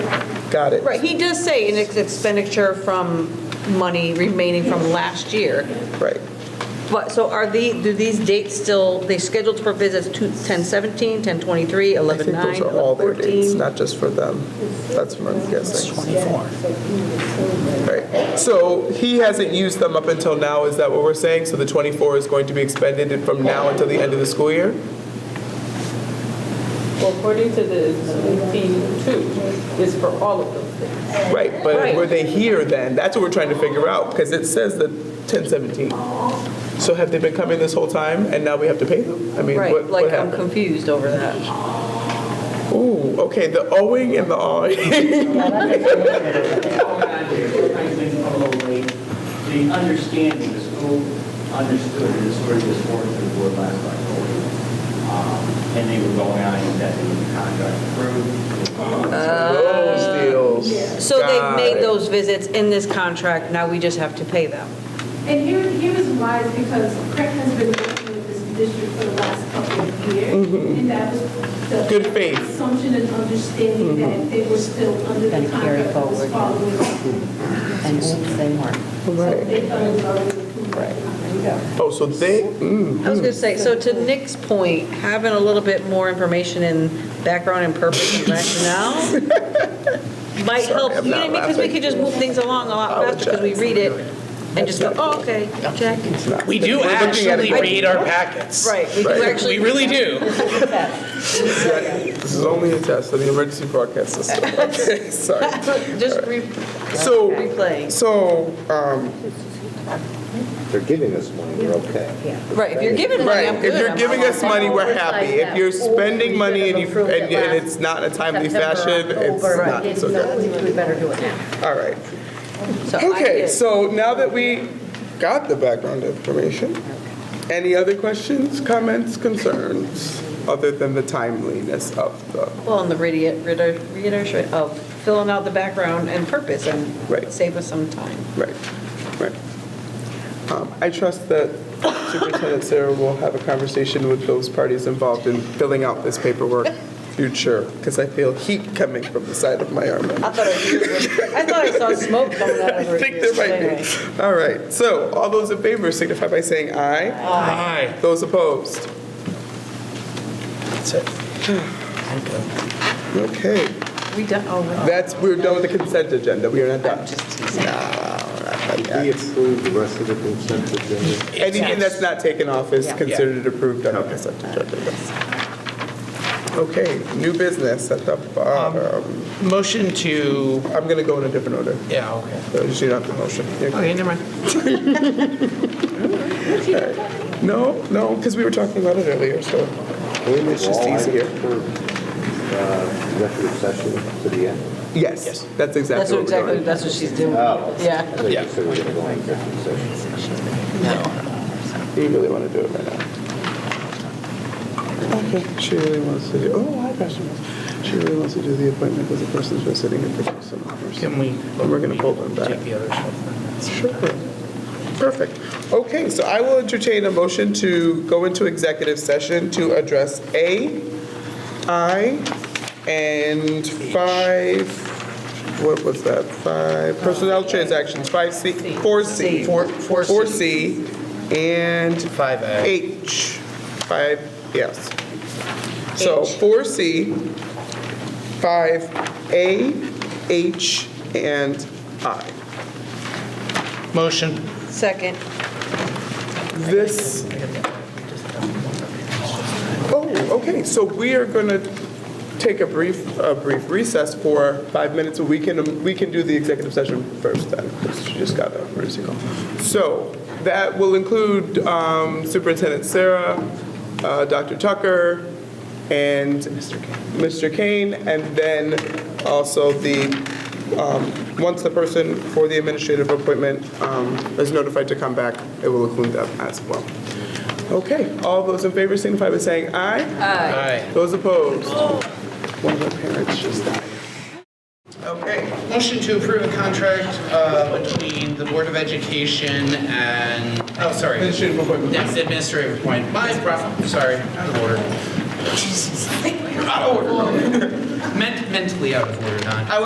Got it. Right, he does say an ex- expenditure from money remaining from last year. Right. But, so are the, do these dates still, they scheduled for visits to 10/17, 10/23, I think 11 those are all their dates, 14? not just for them. That's what I'm guessing. 24. Right. So he hasn't used them up until now, is that what we're saying? So the 24 is going to be expended from now until the end of the school year? Well, according to the fee two, is for all of those things. Right, but Right. were they here then? That's what we're trying to figure out, because it says the 1017. So have they been coming this whole time, and now we have to pay them? I mean, Right, what what like, um, I'm happened? confused over that. Ooh, okay, the owing and the awing. The understanding, the school understood, and this sort of just worked through the board last October. Um, And they were going out and that they would contract approved. Those deals. So they've Got made it. those visits in this contract, now we just have to pay them. And here, here is why, is because Craig has been working with this district for the last couple of years. And that was the. Mm-hmm. Good faith. Mm-hmm. Assumption and understanding that they were still under the Gonna carry contract that was forward. following. And oops, they weren't. So they thought it was already approved. Oh, so they, mm, I was gonna say, so to Nick's point, having a little bit more information and background and purpose and rationale might help, I'm you know not what I mean? Because we laughing. Oh, could just move things along a lot faster because we read it and just go, oh, okay, check. We do We're looking at actually it. read our packets. Right, we do Right. We actually. really do. this is only a test of the emergency broadcast system. Okay, sorry. Just re- So, replaying. so, um, They're giving us money, we're okay. Right, if you're giving money, right, I'm if good. you're I'm giving all us money, we're happy. If you're spending money and you, and and it's not in a timely fashion, it's not, it's okay. We better do it now. All right. So I Okay, did. so now that we got the background information, any other questions, comments, concerns, other than the timeliness of the, Well, and the reiter- reiter- reiteration of filling out the background and purpose Right. and save us some time. right, right. Um, I trust that Superintendent Sarah will have a conversation with those parties involved in filling out this paperwork future, because I feel heat coming from the side of my arm. I thought I I thought I saw smoke coming out I of her think there ears. might Anyway. be. All right, so all those in favor signify by saying aye. Aye. Those opposed? Okay, We done, oh, no. that's, we're done with the consent agenda, we are not done. Did we approve the rest of the consent agenda? Anything that's not taken off is considered approved on the consent agenda. yes. Okay, new business at the Um, bottom. Motion to, I'm going to go in a different order, yeah, okay. so you don't have the motion. You're- Okay, never mind. No, no, because we were talking about it earlier, so it's just easier. uh, Executive session to the end? Yes, that's That's exactly what what we're exactly, doing. Oh. that's what she's doing. Yeah. I thought you said we were going to go on executive session. You really want to do it right now. Okay, she really wants to do, oh, I question this. She really wants to do the appointment because the person's been sitting in for some hours. Can we? And we're going to pull them back. Take the other stuff. Sure. Perfect. Okay, so I will entertain a motion to go into executive session to address A, I, and five, what was that? Five, personnel transactions, five C, four C. Four- four C. Four C, and. Five A. H, five, yes. So four C, five A, H, and I. Motion. Second. This, oh, okay, so we are going to take a brief, a brief recess for five minutes. We can, we can do the executive session first then, because she just got a emergency call. So that will include um, Superintendent Sarah, uh, Dr. Tucker, and Mr. Kane, and then also the, um, once the person for the administrative appointment um, is notified to come back, it will include them as well. Okay, all those in favor signify by saying aye. Aye. Those opposed? One of our parents just died. Okay. Motion to approve a contract uh, between the Board of Education and, oh, sorry. Administrative appointment. Yes, administrative appointment. My problem, sorry, out of order. Jesus, Out of order. Ment- Mentally out of order, not.